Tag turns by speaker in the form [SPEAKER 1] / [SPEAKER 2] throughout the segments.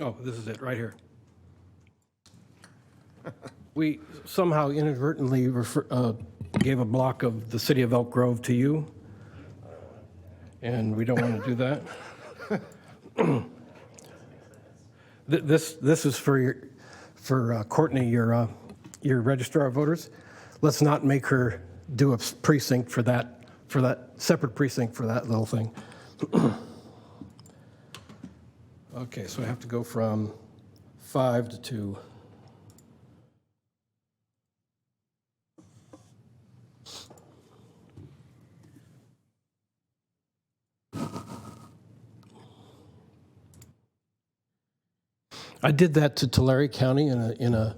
[SPEAKER 1] Oh, this is it, right here. We somehow inadvertently refer, uh, gave a block of the city of Elk Grove to you, and we don't want to do that. Th- This, this is for your, for uh, Courtney, your, uh, your registrar of voters. Let's not make her do a precinct for that, for that, separate precinct for that little thing. Okay, so I have to go from five to two. I did that to Tulare County in a, in a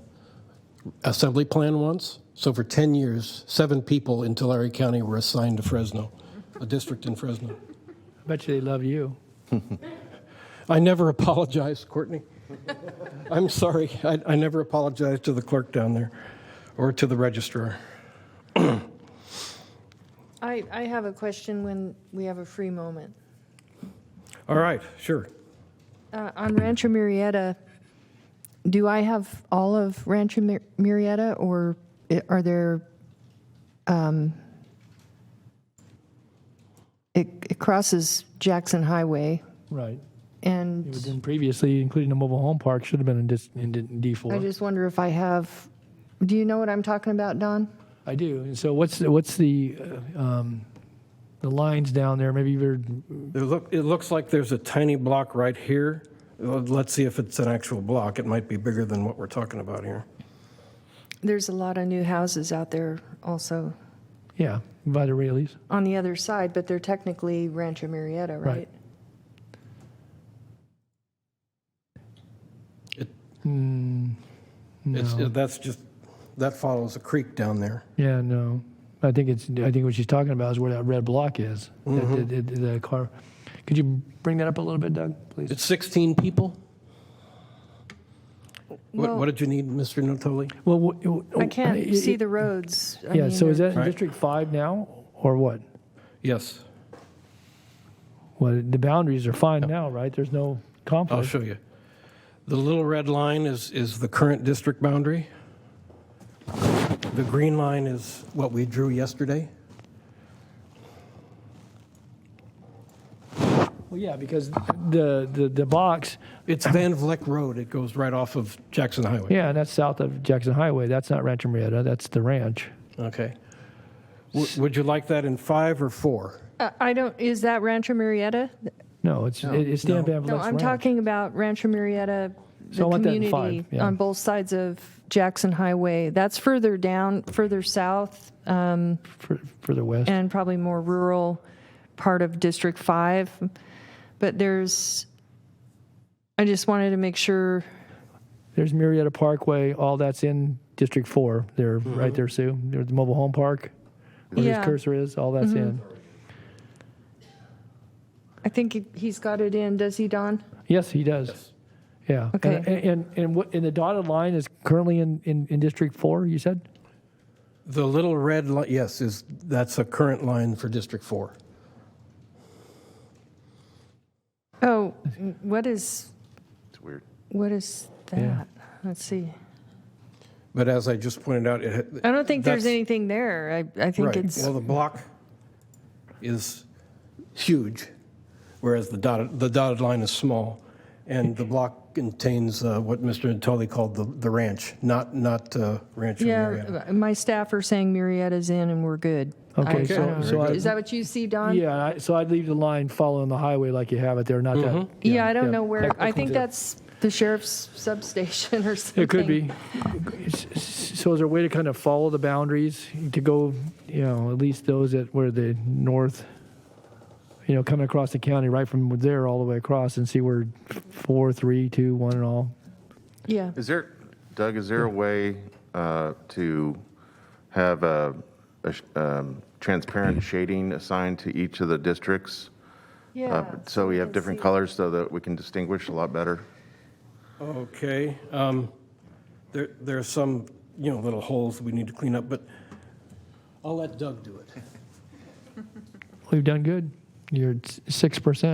[SPEAKER 1] assembly plan once. So for 10 years, seven people in Tulare County were assigned to Fresno, a district in Fresno.
[SPEAKER 2] Bet you they love you.
[SPEAKER 1] I never apologized, Courtney. I'm sorry. I, I never apologized to the clerk down there or to the registrar.
[SPEAKER 3] I, I have a question when we have a free moment.
[SPEAKER 1] All right, sure.
[SPEAKER 3] Uh, On Rancho Murrieta, do I have all of Rancho Mur- Murrieta, or i- are there, um, it it crosses Jackson Highway,
[SPEAKER 2] Right. It was
[SPEAKER 3] and
[SPEAKER 2] in previously, including the mobile home park, should have been in, dis, in D-
[SPEAKER 3] I
[SPEAKER 2] D4.
[SPEAKER 3] just wonder if I have, do you know what I'm talking about, Don?
[SPEAKER 2] I, do. And so what's the- what's the uh, um, the lines down there? Maybe you're
[SPEAKER 1] It, look, it looks like there's a tiny block right here. Uh, Let's see if it's an actual block. It might be bigger than what we're talking about here.
[SPEAKER 3] There's a lot of new houses out there also
[SPEAKER 2] yeah by the railies.
[SPEAKER 3] on the other side, but they're technically Rancho Murrieta, right?
[SPEAKER 2] Right.
[SPEAKER 1] It- Hmm,
[SPEAKER 2] Mm, no.
[SPEAKER 1] It's, that's just, that follows a creek down there.
[SPEAKER 2] yeah, no. I think it's. I think what she's talking about is where that red block is. That- that- that- the car. Could you bring that up a little bit, Doug, please?
[SPEAKER 1] It's 16 people? What,
[SPEAKER 3] Well-
[SPEAKER 1] what did you need, Mr. Natoli?
[SPEAKER 2] well, w-
[SPEAKER 3] I can't
[SPEAKER 2] it-
[SPEAKER 3] see
[SPEAKER 2] Oh, it-
[SPEAKER 3] the roads. I
[SPEAKER 2] Yeah.
[SPEAKER 3] mean,
[SPEAKER 2] So is
[SPEAKER 3] they're-
[SPEAKER 2] that in
[SPEAKER 1] Right.
[SPEAKER 2] District Five now, or what?
[SPEAKER 1] Yes,
[SPEAKER 2] Well, the boundaries are fine now, right? There's no conflict.
[SPEAKER 1] I'll show you. The little red line is, is the current district boundary. The green line is what we drew yesterday.
[SPEAKER 2] Well, yeah, because the, the, the box,
[SPEAKER 1] It's Van Vleck Road. It goes right off of Jackson Highway.
[SPEAKER 2] yeah, and that's south of Jackson Highway. That's not Rancho Marietta. That's the ranch.
[SPEAKER 1] Okay. W- Would you like that in five or four?
[SPEAKER 3] Uh, I don't, is that Rancho Murrieta?
[SPEAKER 2] No, it's it, it's Dan Van Vleck's
[SPEAKER 3] No, I'm
[SPEAKER 2] ranch.
[SPEAKER 3] talking about Rancho Murrieta,
[SPEAKER 2] So I
[SPEAKER 3] the
[SPEAKER 2] want that in five,
[SPEAKER 3] community
[SPEAKER 2] yeah.
[SPEAKER 3] on both sides of Jackson Highway. That's further down, further south, um,
[SPEAKER 2] for, further west.
[SPEAKER 3] and probably more rural part of District 5. But there's, I just wanted to make sure,
[SPEAKER 2] There's Marietta Parkway. All that's in District Four. There, right there, Sue. There's the mobile home park. Where
[SPEAKER 3] Yeah. Mm-hmm.
[SPEAKER 2] his cursor is, all that's in.
[SPEAKER 3] I think he- he's got it in, does he, Don?
[SPEAKER 2] Yes, he does. Yeah.
[SPEAKER 3] Okay.
[SPEAKER 2] And, and and what? And the dotted line is currently in, in, in District Four. You said.
[SPEAKER 1] The little red line, yes, is, that's a current line for District Four.
[SPEAKER 3] Oh, n- what is,
[SPEAKER 4] It's weird.
[SPEAKER 3] what is
[SPEAKER 2] Yeah.
[SPEAKER 3] that? Let's see.
[SPEAKER 1] But as I just pointed out, it,
[SPEAKER 3] I don't think there's
[SPEAKER 1] That's-
[SPEAKER 3] anything there. I, I think
[SPEAKER 1] Right.
[SPEAKER 3] it's,
[SPEAKER 1] Well, the block is huge, whereas the dotted, the dotted line is small. And the block contains uh, what Mr. Natoli called the, the ranch, not, not uh, Rancho Marietta.
[SPEAKER 3] yeah, uh, my staff are saying Murrieta's in and we're good.
[SPEAKER 2] Okay,
[SPEAKER 3] I- I
[SPEAKER 2] so-
[SPEAKER 3] don't know.
[SPEAKER 2] so I-
[SPEAKER 3] Is that what you see, Don?
[SPEAKER 2] Yeah. I, so I'd leave the line following the highway like you have it there. Not that.
[SPEAKER 3] Yeah, I don't
[SPEAKER 2] yeah,
[SPEAKER 3] know where, I think
[SPEAKER 2] technical.
[SPEAKER 3] that's the sheriff's substation or something.
[SPEAKER 2] It could be. S- s- So is there a way to kind of follow the boundaries to go, you know, at least those that were the north, you know, coming across the county right from there all the way across and see where four, three, two, one and all?
[SPEAKER 3] Yeah,
[SPEAKER 4] Is uh, there, Doug, is there a way uh, to have a a sh- um, transparent shading assigned to each of the districts? uh,
[SPEAKER 3] yeah.
[SPEAKER 4] So we have
[SPEAKER 3] can
[SPEAKER 4] different
[SPEAKER 3] see.
[SPEAKER 4] colors so that we can distinguish a lot better?
[SPEAKER 1] Okay, um, there, there are some, you know, little holes we need to clean up, but I'll let Doug do it.
[SPEAKER 2] We've done good. You're at s- 6%.